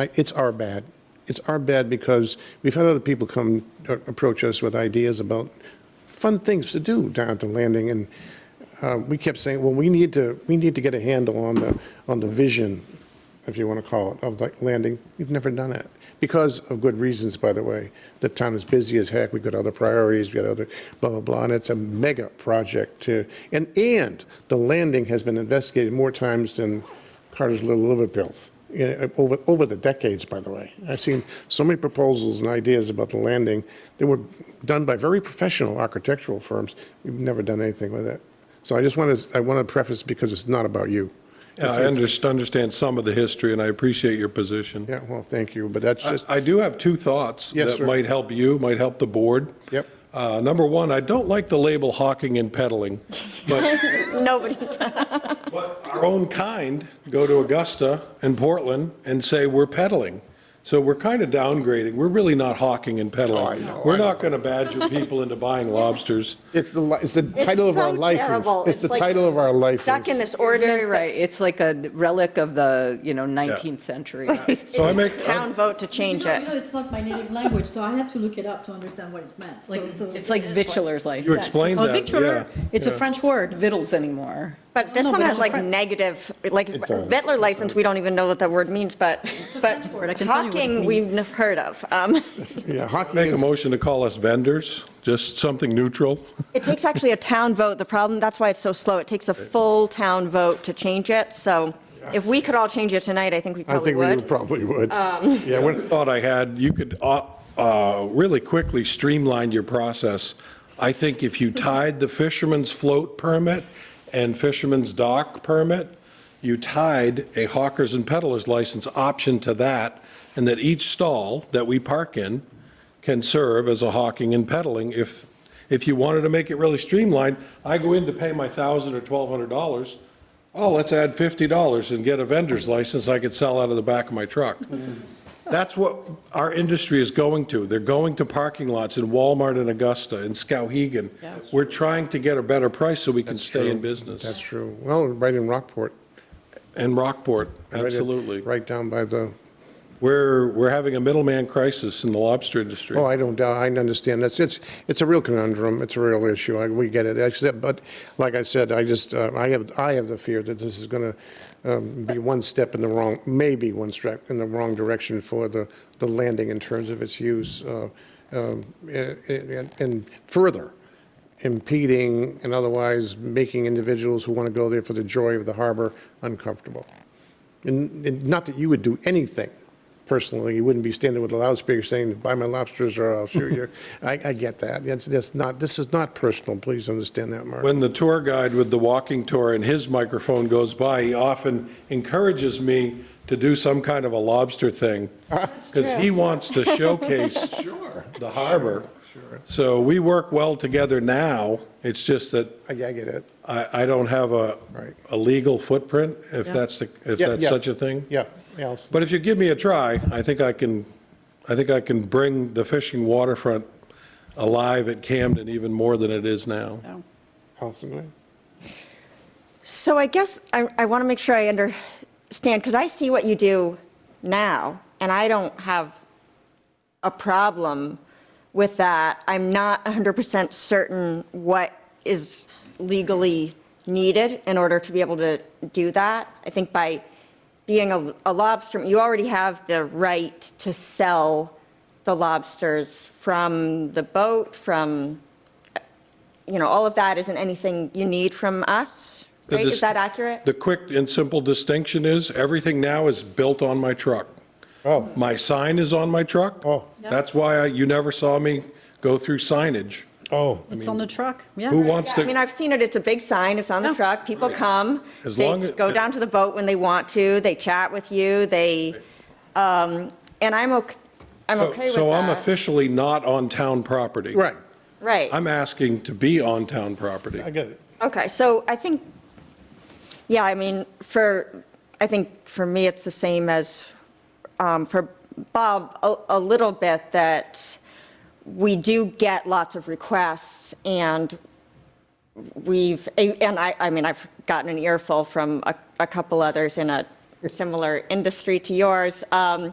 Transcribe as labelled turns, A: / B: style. A: I- It's our bad. It's our bad because we've had other people come, uh, approach us with ideas about fun things to do down at the landing, and uh, we kept saying, well, we need to, we need to get a handle on the, on the vision, if you want to call it, of the landing. We've never done it, because of good reasons, by the way. The town is busy as heck, we've got other priorities, we've got other blah, blah, blah, and it's a mega project to, and, and the landing has been investigated more times than Carter's Little Liverpills, yeah, over, over the decades, by the way. I've seen so many proposals and ideas about the landing that were done by very professional architectural firms. We've never done anything with it. So I just want to, I want to preface because it's not about you.
B: Yeah, I under- understand some of the history, and I appreciate your position.
A: Yeah, well, thank you, but that's
B: I-
A: just,
B: I do have two thoughts
A: Yes, sir.
B: that might help you, might help the board.
A: Yep.
B: Uh, Number one, I don't like the label hawking and peddling, but
C: Nobody.
B: but our own kind go to Augusta and Portland and say, "We're peddling." So we're kind of downgrading. We're really not hawking and
A: Oh,
B: peddling. We're not going to badger people into buying lobsters.
A: it's the, li- it's the title of our
C: so
A: license.
C: terrible.
A: It's the
C: It's like
A: title of our license.
C: Stuck in this
D: You're
C: ordinance.
D: very right. It's like a relic of the, you know, 19th century.
B: So I make,
C: that Town vote to change
E: You know-
C: it.
E: You know, it's not my native language, so I had to look it up to understand what it meant.
D: Like,
E: So- so-
D: It's like vitulers
B: you
D: license,
B: explained
F: Oh,
B: that, yeah.
F: vitreler, it's a French word.
D: vittles anymore.
C: But this
F: No,
C: one
F: but
C: has
F: it's
C: like
F: French.
C: negative, like
A: does,
C: Vettler license, we don't even know what that word means, but, but
F: French word, I can tell you what it
C: hawking,
F: means.
C: we've never heard of. Um,
A: Yeah, hockey
B: Make a
A: is,
B: motion to call us vendors, just something neutral.
C: It takes actually a town vote. The problem, that's why it's so slow. It takes a full town vote to change it. So if we could all change it tonight, I think we
A: I
C: probably
A: think we
C: would.
A: probably would.
C: Um.
A: Yeah,
B: I
A: when-
B: would have thought I had, you could uh, uh, really quickly streamline your process. I think if you tied the fisherman's float permit and fisherman's dock permit, you tied a hawkers and peddlers license option to that, and that each stall that we park in can serve as a hawking and peddling. If, if you wanted to make it really streamlined, I go in to pay my $1,000 or $1,200, oh, let's add $50 and get a vendor's license I could sell out of the back of my truck. That's what our industry is going to. They're going to parking lots in Walmart and Augusta and Skowhegan. We're trying to get a better price so we can stay in
A: That's
B: business.
A: true. Well, right in Rockport.
B: And Rockport,
A: right in-
B: absolutely.
A: Right down by the
B: We're, we're having a middleman crisis in the lobster industry.
A: Oh, I don't doubt, I understand. That's, it's, it's a real conundrum. It's a real issue. I- We get it. Except, but like I said, I just, uh, I have, I have the fear that this is going to be one step in the wrong, maybe one step in the wrong direction for the, the landing in terms of its use. uh, um, a- a- And and further impeding and otherwise making individuals who want to go there for the joy of the harbor uncomfortable. And, and not that you would do anything personally, you wouldn't be standing with a loudspeaker saying, buy my lobsters or I'll shoot you. I, I get that. It's, it's not, this is not personal. Please understand that, Mark.
B: When the tour guide with the walking tour and his microphone goes by, he often encourages me to do some kind of a lobster thing because he wants to showcase the harbor. So we work well together now. It's just that
A: I, I get it.
B: I, I don't have a,
A: Right.
B: a legal footprint, if
F: Yeah.
B: that's, the if
A: Yeah,
B: that's
A: yeah.
B: such a thing.
A: Yeah, yeah. I'll s-
B: But if you give me a try, I think I can, I think I can bring the fishing waterfront alive at Camden even more than it is now.
A: I'll s-
C: So I guess I, I want to make sure I understand, because I see what you do now, and I don't have a problem with that. I'm not 100% certain what is legally needed in order to be able to do that. I think by being a, a lobster, you already have the right to sell the lobsters from the boat, from, you know, all of that isn't anything you need from us,
B: The
C: right?
B: dis-
C: Is that accurate?
B: The quick and simple distinction is, everything now is built on my truck.
A: Oh.
B: My sign is on my truck.
A: Oh.
B: That's why I- you never saw me go through signage.
A: Oh,
F: It's on the truck, yeah.
B: Who wants
C: I mean,
B: to,
C: I've seen it, it's a big sign, it's on the
F: Yeah.
C: truck, people come,
B: As long
C: they
B: as-
C: go down to the boat when they want to, they chat with you, they, um, and I'm okay, I'm
B: So-
C: okay with that.
B: so I'm officially not on town property.
A: right.
C: Right.
B: I'm asking to be on town property.
A: I get it.
C: Okay, so I think, yeah, I mean, for, I think for me, it's the same as um, for Bob, a- a little bit, that we do get lots of requests, and we've, and I, I mean, I've gotten an earful from a- a couple others in a similar industry to yours, um,